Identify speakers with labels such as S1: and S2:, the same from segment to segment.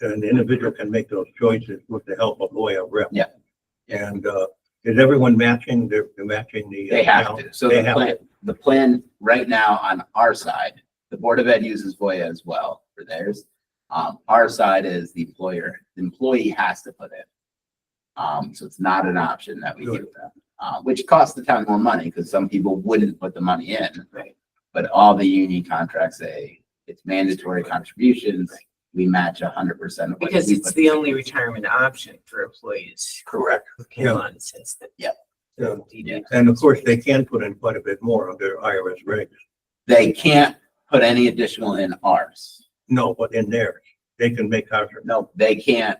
S1: and the individual can make those choices with the help of lawyer rep.
S2: Yeah.
S1: And, uh, is everyone matching, they're, they're matching the. uh,
S2: They have
S1: town?
S2: to. So
S1: They
S2: the
S1: have
S2: plan, the plan right now on our side, the Board of Ed uses Voya as well for theirs. Um, our side is the employer, the employee has to put in. Um, so it's not an option that we give them, uh, which costs the town more money because some people wouldn't put the money in.
S1: Right.
S2: But all the union contracts say it's mandatory contributions. We match a hundred percent. of what
S3: Because
S2: we
S3: it's
S2: put
S3: the
S2: in.
S3: only retirement option for employees
S1: Correct.
S3: who came
S1: Yeah.
S3: on since the.
S2: Yep.
S1: Yeah.
S3: DD.
S1: And of course, they can put in quite a bit more under IRS regs.
S2: They can't put any additional in ours.
S1: No, but in there, they can make contributions.
S2: No, they can't.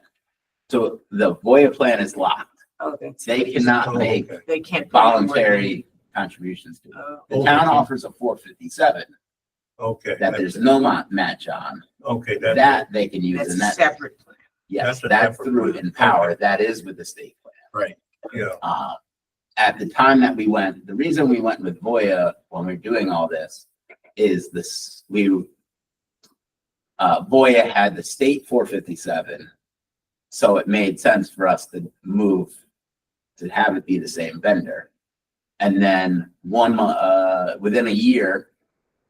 S2: So the Voya plan is locked.
S3: Oh, that's.
S2: They cannot make
S3: They can't. put any more than-
S2: voluntary contributions to it.
S3: Oh,
S2: The town offers a four fifty-seven
S1: Okay.
S2: that there's no ma- match on.
S1: Okay, that's,
S2: That they can use
S3: That's
S2: and
S3: a
S2: that,
S3: separate plan.
S2: yes,
S1: That's a
S2: that's
S1: separate
S2: through
S1: one.
S2: Empower. That is with the state plan.
S1: yeah,
S2: Uh, at the time that we went, the reason we went with Voya when we're doing all this is this, we uh, Voya had the state four fifty-seven. So it made sense for us to move to have it be the same vendor. And then one, mo- uh, within a year,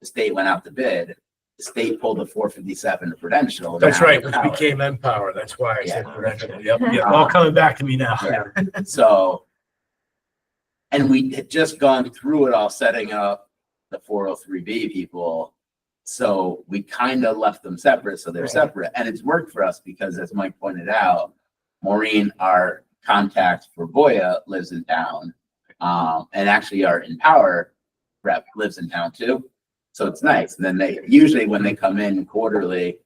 S2: the state went out to bid, the state pulled the four fifty-seven credential.
S4: That's
S2: Now
S4: right,
S2: it's
S4: which
S2: powered.
S4: became Empower. That's why I said
S2: Yeah.
S4: parental. Yep, yep.
S2: Uh,
S4: All coming back to me now.
S2: So. And we had just gone through it all, setting up the four oh three B people. So we kind of left them separate, so they're
S4: Right.
S2: separate, and it's worked for us because as Mike pointed out, Maureen, our contact for Voya lives in town. Um, and actually our Empower rep lives in town too. So it's nice. And then they, usually when they come in quarterly,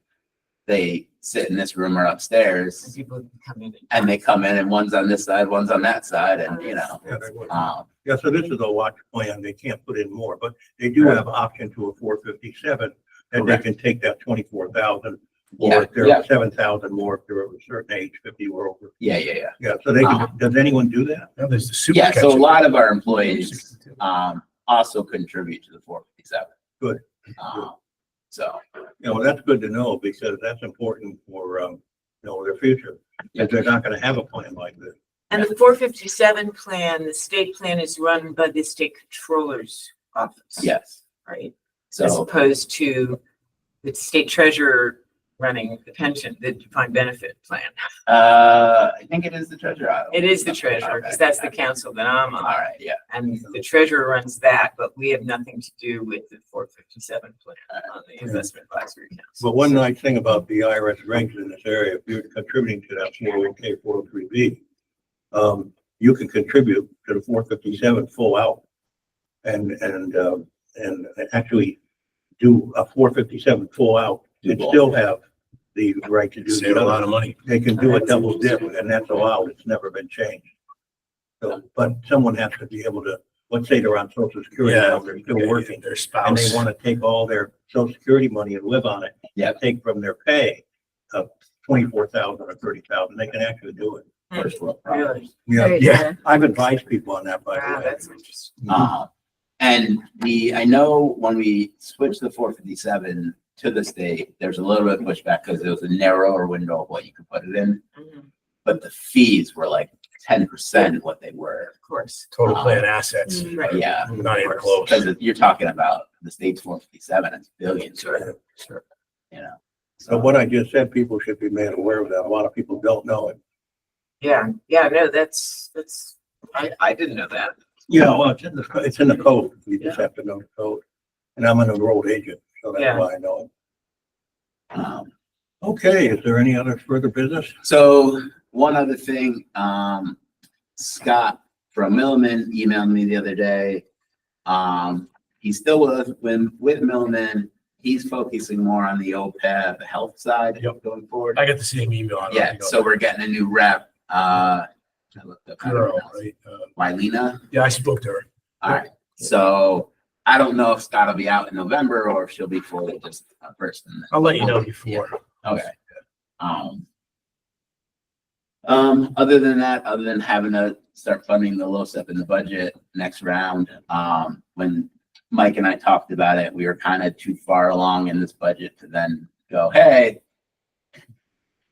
S2: they sit in this room or
S3: Some
S2: upstairs
S3: people can come in.
S2: and they come in and one's on this side, one's on that side and, you know,
S1: yeah, they would.
S2: um,
S1: yeah, so this is a watch plan, they can't put in more, but they do have option to a four fifty-seven, and they
S2: Correct.
S1: can take that twenty-four thousand,
S2: Yeah,
S1: or if
S2: yeah.
S1: they're seven thousand more, if they're of a certain age, fifty or over.
S2: yeah, yeah, yeah.
S1: Yeah, so they,
S2: Uh-huh.
S1: can- does anyone do that?
S4: Now there's the super.
S2: Yeah, so a
S4: catcher.
S2: lot of our employees,
S4: 62.
S2: um, also contribute to the four fifty-seven.
S1: Good.
S2: Um, so,
S1: You know, that's good to know, because that's important for, um, you know, their future,
S2: Yeah.
S1: if they're not gonna have a plan like this.
S3: And the four fifty-seven plan, the state plan is run by the state controller's office.
S2: yes,
S3: Right? As
S2: so,
S3: opposed to the state treasurer running the pension, the defined benefit plan.
S2: uh, I think it is the treasurer.
S3: It is the treasurer, because that's the council that I'm
S2: All
S3: on.
S2: right, yeah.
S3: And the treasurer runs that, but we have nothing to do with the four fifty-seven plan on the investment advisory council.
S1: But one nice thing about the IRS regs in this area, if you're contributing to that four oh K, four oh three B, um, you can contribute to the four fifty-seven full out. And, and, um, and actually do a four fifty-seven full out, and still have the right to do
S4: Save a
S1: the
S4: lot
S1: other.
S4: of money.
S1: They can do a double dip, and that's allowed, it's never been changed. So, but someone has to be able to, let's say they're on social security now, they're still working
S4: Their
S1: and
S4: spouse.
S1: they want to take all their social security money and live on it.
S2: Yeah.
S1: Take from their pay of twenty-four thousand or thirty thousand, they can actually do it.
S2: First world problem.
S3: Hmm. Really?
S1: Yeah,
S4: Yeah.
S1: I've advised people on that, by
S3: Wow,
S1: the way.
S3: that's interesting.
S1: Mhm.
S2: Uh, and we, I know when we switched the four fifty-seven to the state, there's a little bit of pushback because it was a narrower window of what you could put it in.
S3: Mhm, Of
S2: but the fees were like ten percent what they were.
S3: course.
S4: Total plan assets.
S3: Right.
S2: Yeah,
S4: Not even close.
S2: because you're talking about the state's one fifty-seven, it's billions, right?
S4: Sure.
S2: You know.
S1: So what I just said, people should be made aware of that. A lot of people don't know it.
S3: Yeah, yeah, no, that's, that's, I, I didn't know that.
S1: Yeah, well, it's in the, it's in the code. You just have to know the code. And I'm an enrolled agent, so
S3: Yeah.
S1: that's why I know it.
S2: Um,
S1: Okay, is there any other further business?
S2: so one other thing, um, Scott from Milliman emailed me the other day. Um, he's still with, with, with Milliman. He's focusing more on the OPEB health side
S4: Yep.
S2: going forward.
S4: I got the E same email. I don't
S2: Yeah,
S4: know.
S2: so we're getting a new rep, uh, I looked up how to
S4: Girl,
S2: pronounce it.
S4: right? Uh,
S2: Wylena.
S4: Yeah, I spoke to her.
S2: So I don't know if Scott will be out in November or if she'll be fully just a person.
S4: I'll let you know before.
S2: Okay. Um. Um, other than that, other than having to start funding the low step in the budget next round, um, when Mike and I talked about it, we were kind of too far along in this budget to then go, hey,